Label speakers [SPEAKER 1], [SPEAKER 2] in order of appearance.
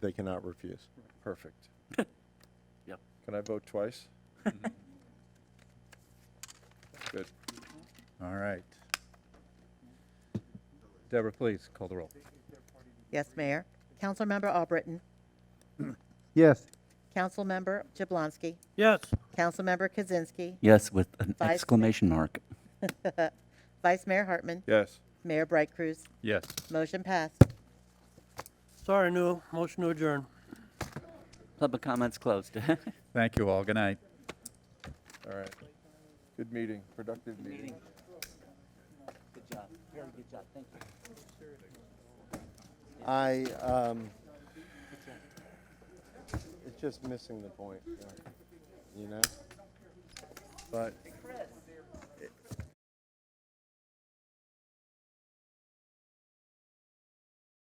[SPEAKER 1] They cannot refuse. Perfect.
[SPEAKER 2] Yep.
[SPEAKER 1] Can I vote twice? Good.
[SPEAKER 3] All right. Deborah, please call the roll.
[SPEAKER 4] Yes, Mayor. Councilmember Albritton,
[SPEAKER 3] Yes.
[SPEAKER 4] Councilmember Jablonski,
[SPEAKER 5] Yes.
[SPEAKER 4] Councilmember Kaczynski,
[SPEAKER 2] Yes, with an
[SPEAKER 4] Vice-
[SPEAKER 2] exclamation mark.
[SPEAKER 4] Vice Mayor Hartman,
[SPEAKER 1] Yes.
[SPEAKER 4] Mayor Bright Cruz.
[SPEAKER 3] Yes.
[SPEAKER 4] Motion passed.
[SPEAKER 5] Sorry, no, motion to adjourn.
[SPEAKER 2] Public comments closed.
[SPEAKER 3] Thank you all. Good night.
[SPEAKER 1] All right. Good meeting, productive meeting.
[SPEAKER 2] Good job, very good job, thank you.
[SPEAKER 1] I, um, it's just missing the point, you know? But